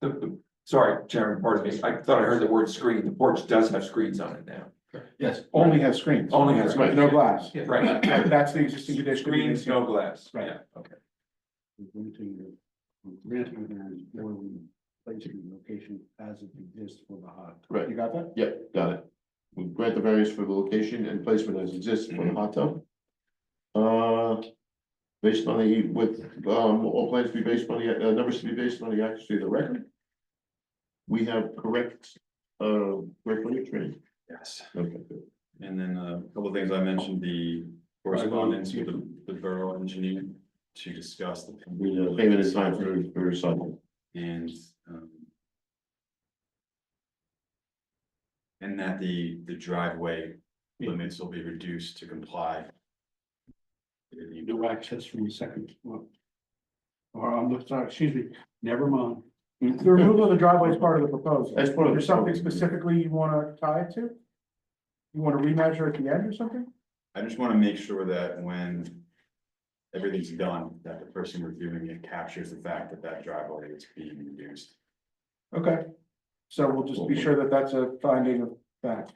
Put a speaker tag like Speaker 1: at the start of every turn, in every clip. Speaker 1: the, the, sorry, Chairman, pardon me, I thought I heard the word screen, the porch does have screens on it now.
Speaker 2: Yes,
Speaker 3: Only have screens.
Speaker 1: Only has
Speaker 3: That's
Speaker 1: screens.
Speaker 3: right, No glass.
Speaker 2: Yeah.
Speaker 1: Right,
Speaker 3: That's the existing condition.
Speaker 1: screens, no glass,
Speaker 3: Right.
Speaker 1: yeah,
Speaker 4: Renting the, renting the, or placing location as it exists for the hot tub.
Speaker 2: right,
Speaker 3: You got that?
Speaker 2: yep, got it. We grant the variance for the location and placement as exists for the hot tub. Uh, based on the, with, um, all plans to be based on the, uh, numbers to be based on the accuracy of the record. We have correct, uh, record training.
Speaker 5: Yes.
Speaker 2: Okay, good.
Speaker 5: And then uh, a couple of things I mentioned, the correspondence with the- the borough engineer to discuss the.
Speaker 2: We, uh, payment is time for, for recycling.
Speaker 5: And, um. And that the, the driveway limits will be reduced to comply. with the-
Speaker 4: No access from the second floor. Or I'm not- sorry, excuse me, never mind.
Speaker 3: The removal of the driveway is part of the proposal.
Speaker 2: That's part of the-
Speaker 3: There's something specifically you wanna tie it to? You wanna remeasure at the end or something?
Speaker 5: I just want to make sure that when everything's done, that the person reviewing it captures the fact that that driveway is being reduced.
Speaker 3: Okay. So we'll just be sure that that's a finding of fact.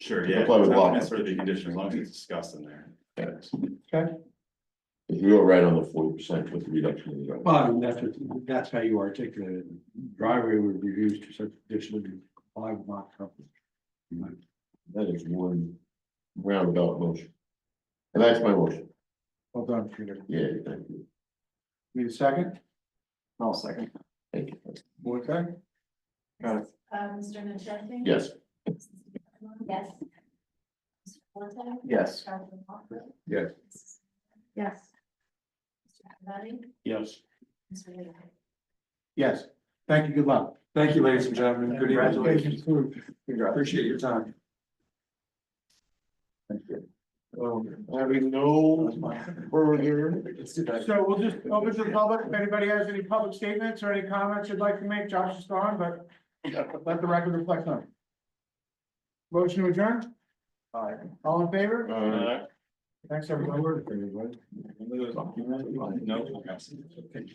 Speaker 5: Sure, yeah, it's
Speaker 2: Comply with law.
Speaker 5: not necessarily the condition, as long as it's discussed in there.
Speaker 2: Thanks.
Speaker 3: Okay.
Speaker 2: You're all right on the forty percent with the reduction. in the driveway.
Speaker 4: Well, I mean, that's, what- that's how you articulate it. Driveway would be used to such additional comply with lot coverage.
Speaker 2: That is one roundabout motion. And that's my motion.
Speaker 3: Well done, Peter.
Speaker 2: Yeah, thank you.
Speaker 3: Need a second?
Speaker 6: I'll second.
Speaker 2: Thank you.
Speaker 3: Okay. Got it.
Speaker 7: Uh, Mr. Nuchesny?
Speaker 2: Yes,
Speaker 7: Yes. Mr. Forte?
Speaker 6: Yes.
Speaker 7: Dr. Walker?
Speaker 1: Yes.
Speaker 7: Yes. Mr. Conrady?
Speaker 4: Yes.
Speaker 7: Mr. Leahy?
Speaker 3: Yes. Thank you. Good luck.
Speaker 1: thank you, ladies and gentlemen, good evening,
Speaker 3: Congratulations.
Speaker 1: appreciate your time.
Speaker 2: um, having no further,
Speaker 3: So we'll just open to the public. If anybody has any public statements or any comments you'd like to make, Josh is gone, but let the record reflect on. it. Motion to adjourn? All in favor?
Speaker 2: uh,
Speaker 3: Thanks, everyone.
Speaker 5: No, okay.